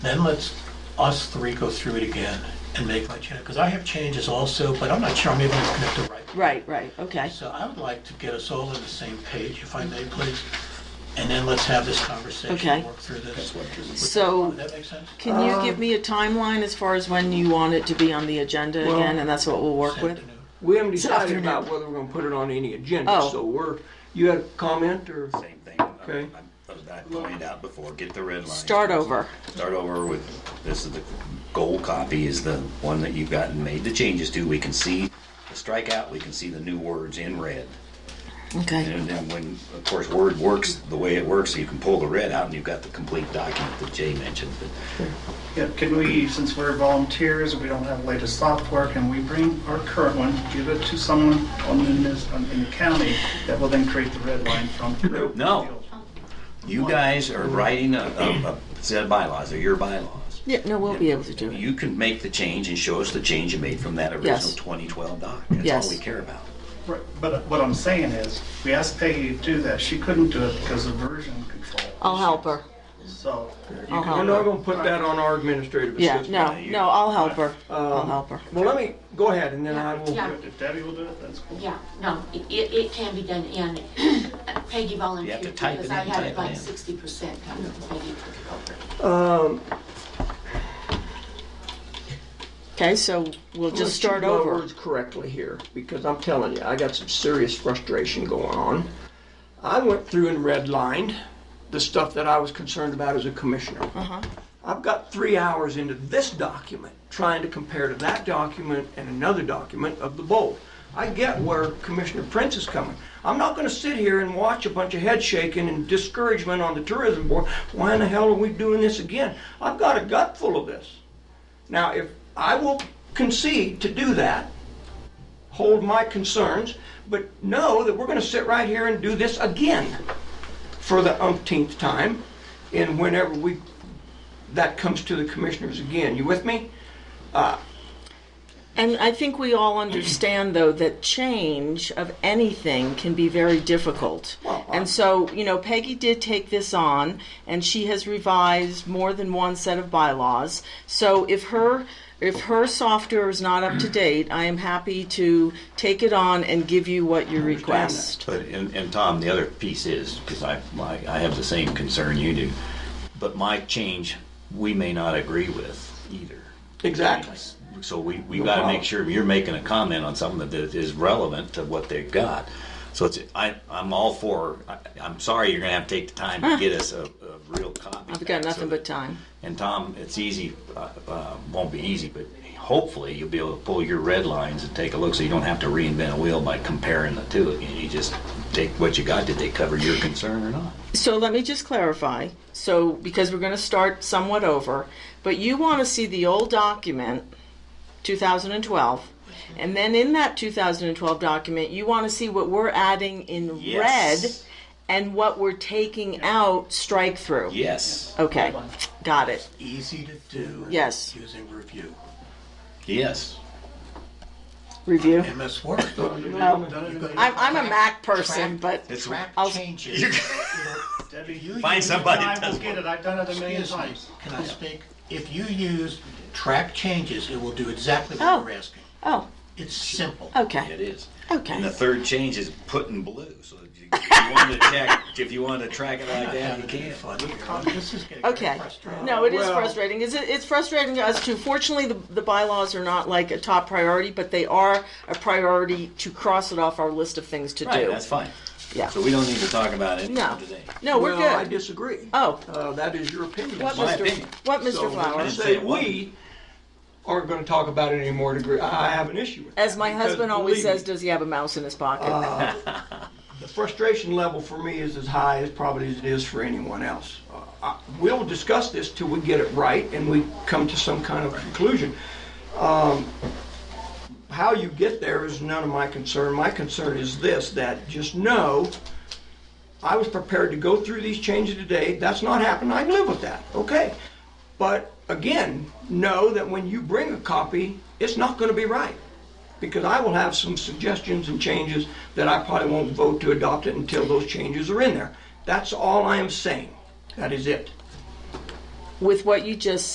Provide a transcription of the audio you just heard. Then let's, us three go through it again and make my change, because I have changes also, but I'm not sure I'm even looking at the right. Right, right, okay. So I would like to get us all on the same page, if I may, please, and then let's have this Okay. conversation, work through this. So Would that make sense? can you give me a timeline as far as when you want it to be on the agenda Well- again, and that's what we'll work This with? afternoon. We haven't It's decided afternoon. about whether we're gonna put it on any agenda, Oh. so we're, you had a comment or? Same thing. I- Okay. I was not pointed out before, get the red line. Start over. Start over with, this is the gold copy is the one that you've gotten made the changes to. We can see the strikeout, we can see the new words in red. Okay, And then when, of course, Word works the way it works, you can pull the red out and you've got the complete document that Jay mentioned. But Yeah, can we, since we're volunteers, we don't have latest software, can we bring our current one, give it to someone on in this, on- in the county that will then create the red line from? No. You guys are writing a, a, a set of bylaws, they're your bylaws. yeah, no, we'll be able to do it. You can make the change and show us the change you made from that Yes. original 2012 doc. That's Yes. all we care about. Right, But what I'm saying is, we asked Peggy to do that, she couldn't do it because of version control. I'll help her. So, I'll We're help not her. gonna put that on our administrative Yeah, assistant. no, no, I'll help her. Um, I'll help her. Well, let me, go ahead and then I will. Yeah. if Debbie will do it, that's cool. Yeah, no, it, it it can be done, and uh, Peggy You have volunteered to type because it in, I had type it it like in. sixty percent, Peggy took it over. Okay, so we'll just Let's start choose my over. words correctly here, because I'm telling you, I got some serious frustration going on. I went through and redlined the stuff that I was concerned about as a commissioner. Uh-huh. I've got three hours into this document, trying to compare to that document and another document of the bold. I get where Commissioner Prince is coming. I'm not gonna sit here and watch a bunch of head shaking and discouragement on the tourism board. Why in the hell are we doing this again? I've got a gut full of this. Now, if, I will concede to do that, hold my concerns, but know that we're gonna sit right here and do this again for the umpteenth time, and whenever we, that comes to the commissioners again. You with me? And I think we all understand, though, that change of anything can be very difficult. Well, I- And so, you know, Peggy did take this on, and she has revised more than one set of bylaws. So if her if her software is not up to date, I am happy to take it on and give you what you request. But, and, and Tom, the other piece is, because I, my, I have the same concern you do, but my change, we may not agree with either. Exactly. So we, we No gotta problem. make sure you're making a comment on something that is relevant to what they've got. So it's, I, I'm all for, I, I'm sorry, you're gonna have to take the time to get us a, a real copy. I've back got so nothing but that- time. and Tom, it's easy, uh, uh, won't be easy, but hopefully you'll be able to pull your red lines and take a look so you don't have to reinvent a wheel by comparing the two again. You just take what you got. Did they cover your concern or not? So let me just clarify. So, because we're going to start somewhat over, but you want to see the old document, 2012, and then in that 2012 document, you want to see what we're adding in Yes. red and what we're taking out strike through. Yes. Okay, got it. Easy to do. Yes. Using review. Yes. Review. MS Word. I'm, I'm a Mac person, but It's Track I'll- changes. Debbie, you. Find use it, somebody I that does will get it, I've done it a million Excuse me, times. Can I speak? If you use track changes, it will do exactly Oh. what we're asking. oh, It's simple. okay, It is. And the okay. third change is put in blue. So if you, if you want to check, if you want to track it like that, you can. Fun here. This is getting very Okay. frustrating. No, it is Well- frustrating. It's, it's frustrating to us too. Fortunately, the, the bylaws are not like a top priority, but they are a priority to cross it off our list of things to Right. do. That's fine. Yeah. So we don't need to talk about it No, today. no, we're Well, I good. disagree. Oh. Uh, that is your opinion. What, my Mr. opinion. What, So, Mr. when I Flowers? just- say we aren't gonna talk about it anymore degree, I have an issue with that. As my because husband always believe me, Uh. says, does he have a mouse in his pocket? the frustration level for me is as high as probably as it is for anyone else. Uh, I- We'll discuss this till we get it right and we come to some kind of conclusion. Um, How you get there is none of my concern. My concern is this, that just know, I was prepared to go through these changes today. That's not happened. I can live with that. Okay. But again, know that when you bring a copy, it's not going to be right because I will have some suggestions and changes that I probably won't vote to adopt it until those changes are in there. That's all I am saying. That is it. With what you just